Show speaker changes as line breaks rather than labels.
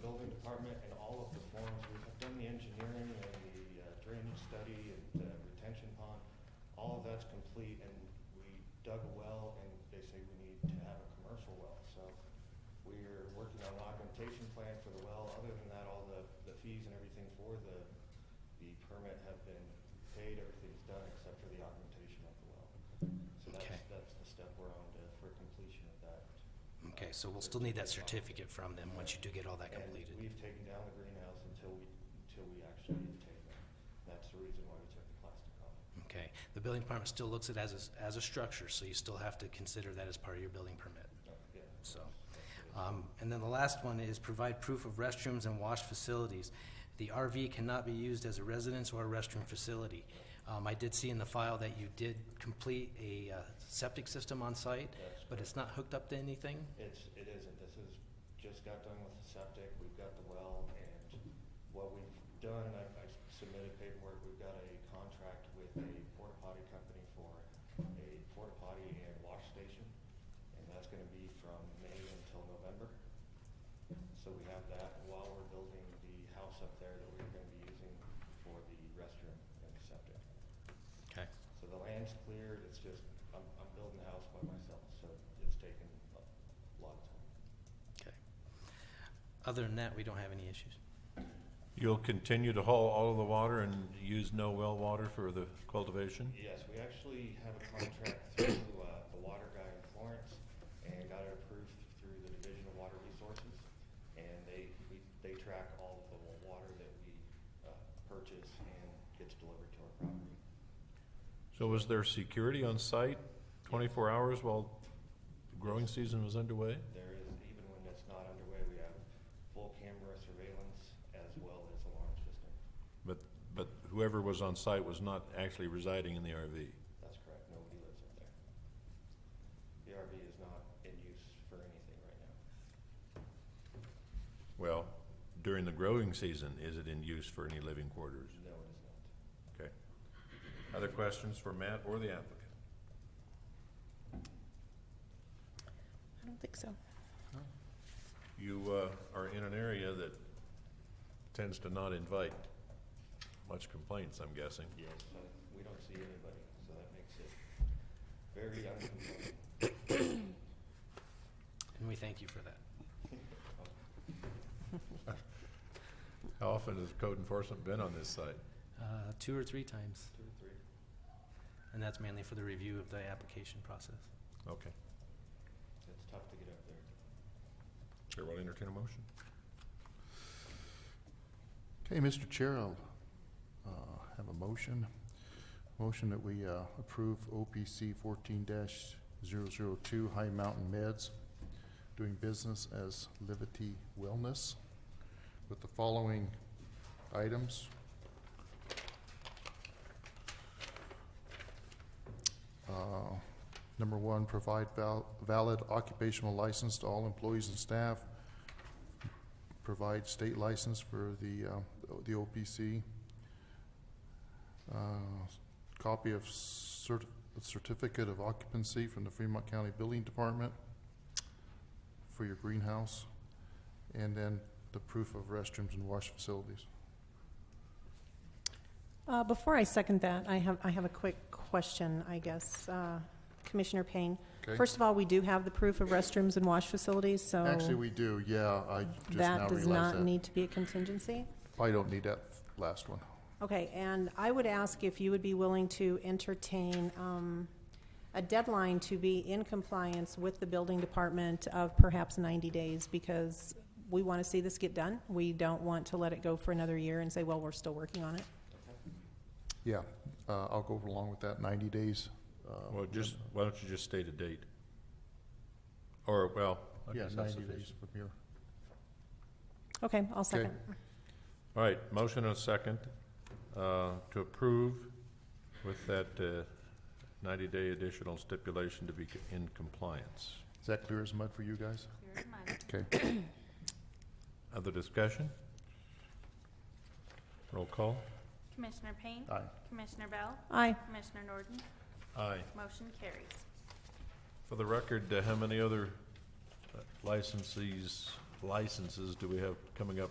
building department in all of the forms. We have done the engineering and the uh, drainage study and uh, retention pond. All of that's complete and we dug a well and they say we need to have a commercial well. So we're working on an augmentation plan for the well. Other than that, all the, the fees and everything for the, the permit have been paid. Everything's done except for the augmentation of the well. So that's,
Okay.
that's the step we're on to, for completion of that.
Okay,
uh,
so we'll still need that
certificate.
certificate from them once you do get all that
And
completed.
we've taken down the greenhouse until we, until we actually take them. That's the reason why we took the plastic off.
Okay, the building department still looks at it as, a- as a structure, so you still have to consider that as part of your building permit.
Don't forget.
So, Um, and then the last one is provide proof of restrooms and wash facilities. The RV cannot be used as a residence or a restroom facility. Um, I did see in the file that you did complete a, uh, septic system on site,
That's
but it's not hooked up to anything?
It's, it isn't, this is, just got done with the septic, we've got the well, and what we've done, I, I submitted paperwork, we've got a contract with a porta potty company for a porta potty and wash station, and that's gonna be from May until November. So we have that while we're building the house up there that we're gonna be using for the restroom and septic.
Okay.
So the land's cleared, it's just, I'm, I'm building the house by myself, so it's taken a lot of time.
Okay. Other than that, we don't have any issues.
You'll continue to haul all of the water and use no well water for the cultivation?
Yes, we actually have a contract through uh, the water guy in Florence and got it approved through the Division of Water Resources. And they, we- they track all of the wa- water that we uh, purchase and gets delivered to our property.
So was there security on site twenty-four hours while the growing season was underway?
There is, even when it's not underway, we have full camera surveillance as well as alarm system.
But, but whoever was on site was not actually residing in the RV?
That's correct, nobody lives up there. The RV is not in use for anything right now.
Well, during the growing season, is it in use for any living quarters?
No, it is not.
Okay. Other questions for Matt or the applicant?
I don't think so.
You uh, are in an area that tends to not invite much complaints, I'm guessing.
Yes, but we don't see anybody, so that makes it very uncomfortable.
And we thank you for that.
How often has code enforcement been on this site?
Uh, two or three times,
Two or three.
and that's mainly for the review of the application process.
Okay.
It's tough to get up there.
Chair will entertain a motion.
Okay, Mr. Chair, I'll uh, have a motion. Motion that we uh, approve OPC 14-002 High Mountain Meds doing business as Livity Wellness with the following items. Uh, Number one, provide val- valid occupational license to all employees and staff provide state license for the, uh, the OPC. Uh, Copy of cert- certificate of occupancy from the Fremont County Building Department for your greenhouse, and then the proof of restrooms and wash facilities.
Uh, Before I second that, I have, I have a quick question, I guess, Uh, Commissioner Payne.
Okay?
First of all, we do have the proof of restrooms and wash facilities, so
Actually, we do, yeah, I just now
that does not
realized that.
need to be a contingency.
I don't need that last one.
Okay, and I would ask if you would be willing to entertain um, a deadline to be in compliance with the building department of perhaps 90 days, because we want to see this get done. We don't want to let it go for another year and say, well, we're still working on it.
Yeah, uh, I'll go along with that, ninety days. uh,
Well, just, why don't you just state a date? Or, well, I
Yeah,
guess that's
ninety days
sufficient.
from here.
Okay, I'll second.
All right, motion and a second uh, to approve with that uh, ninety-day additional stipulation to be c- in compliance.
Is that clear as mud for you guys? Okay.
Other discussion? Roll call.
Commissioner Payne?
Aye.
Commissioner Bell?
Aye.
Commissioner Norton?
Aye.
Motion carries.
For the record, uh, how many other uh, licensees licenses do we have coming up